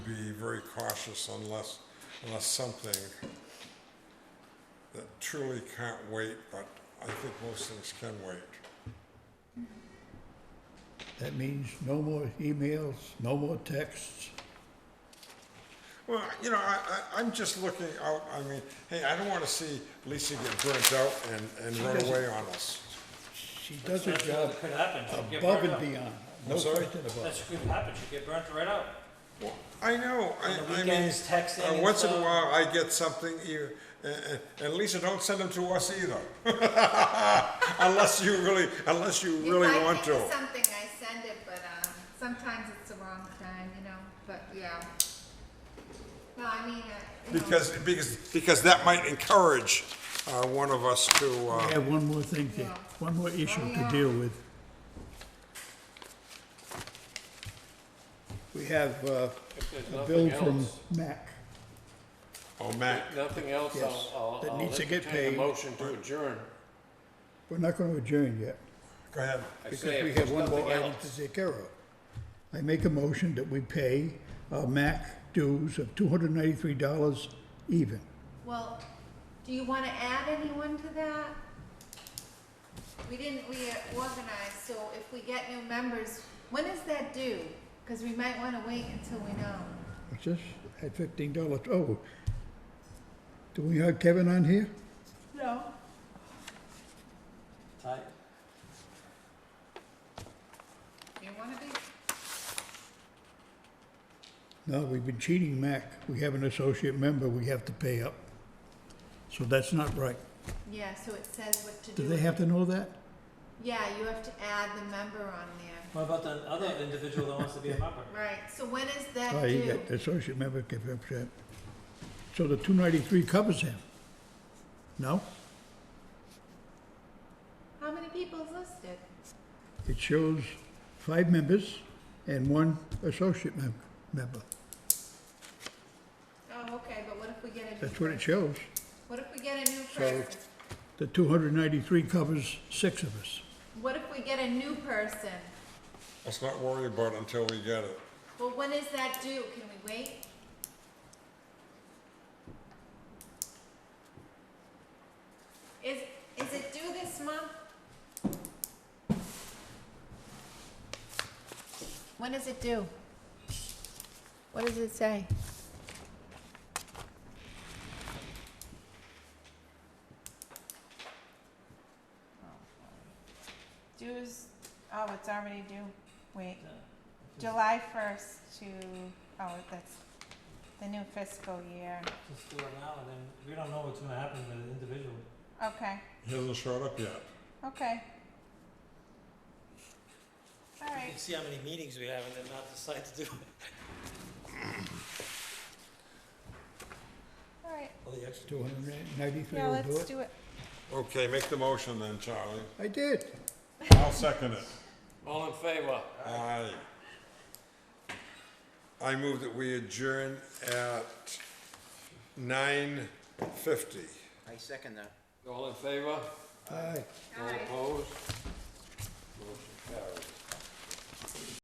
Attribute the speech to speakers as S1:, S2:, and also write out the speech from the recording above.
S1: very cautious unless, unless something that truly can't wait, but I think most things can wait.
S2: That means no more emails, no more texts.
S1: Well, you know, I, I, I'm just looking out, I mean, hey, I don't wanna see Lisa get burnt out and, and run away on us.
S2: She does her
S3: That's
S2: job
S3: what could happen. She'd get
S2: above and
S3: burnt out.
S2: beyond, no
S1: I'm sorry?
S2: question about it.
S3: That's what could happen, she'd get burnt right out.
S1: Well, I know, I, I
S3: On
S1: mean.
S3: the weekends, texting
S1: uh,
S3: and
S1: Once in a
S3: stuff.
S1: while, I get something, you, and, and Lisa, don't send them to us either. Unless you really, unless you really
S4: If I
S1: want
S4: think
S1: to.
S4: of Something, I send it, but, um, sometimes it's the wrong time, you know, but, yeah. No, I mean, uh, you know.
S1: Because, because, because that might encourage, uh, one of us to,
S2: I
S1: uh,
S2: have one more thing to,
S4: Yeah.
S2: one more issue
S4: Oh,
S2: to
S4: yeah.
S2: deal with. We have uh,
S5: If there's
S2: a bill
S5: nothing
S2: from
S5: else,
S2: MAC.
S1: oh, Matt,
S5: nothing else, I'll,
S2: Yes,
S5: I'll,
S2: that
S5: I'll
S2: needs to get
S5: entertain a
S2: paid.
S5: motion to adjourn.
S2: We're not going to adjourn yet
S1: go ahead.
S5: I
S2: because
S5: say if
S2: we have
S5: there's
S2: one more
S5: nothing
S2: item
S5: else.
S2: to take care of. I make a motion that we pay our MAC dues of $293 even.
S4: Well, do you wanna add anyone to that? We didn't, we organized, so if we get new members, when is that due? Cause we might wanna wait until we know.
S2: What's this? At fifteen dollars, oh. Do we have Kevin on here?
S4: No.
S3: I,
S4: You wanna be,
S2: No, we've been cheating Mac. We have an associate member we have to pay up. So that's not right.
S4: yeah, so it says what to do.
S2: Do they have to know that?
S4: Yeah, you have to add the member on there.
S3: what about the other individual that wants to be a member?
S4: Right, so when is that
S2: Oh, you
S4: due?
S2: got the associate member get upset. So the two ninety-three covers him? No?
S4: How many people's listed?
S2: It shows five members and one associate mem- member.
S4: Oh, okay, but what if we get a new?
S2: That's what it
S4: person?
S2: shows.
S4: What if we get a new
S2: So-
S4: person?
S2: The two hundred ninety-three covers six of us.
S4: What if we get a new person?
S1: Let's not worry about it until we get it.
S4: Well, when is that due? Can we wait? Is, is it due this month? When is it due? What does it say? Dues, oh, it's already due. Wait. July first to, oh, that's the new fiscal year.
S3: Just do it now, and then, we don't know what's gonna happen with the individual.
S4: Okay,
S1: He hasn't showed up yet.
S4: okay. All
S3: You
S4: right,
S3: can see how many meetings we have and then not decide to do it.
S4: all right.
S3: All the extra.
S2: Two hundred ninety-three
S4: Yeah,
S2: will do
S4: let's
S2: it.
S4: do it.
S1: Okay, make the motion then, Charlie.
S2: I did.
S1: I'll second it.
S5: All in favor?
S1: Aye. I move that we adjourn at nine fifty.
S6: I second that.
S5: All in favor?
S2: Aye.
S5: All opposed? Motion carries.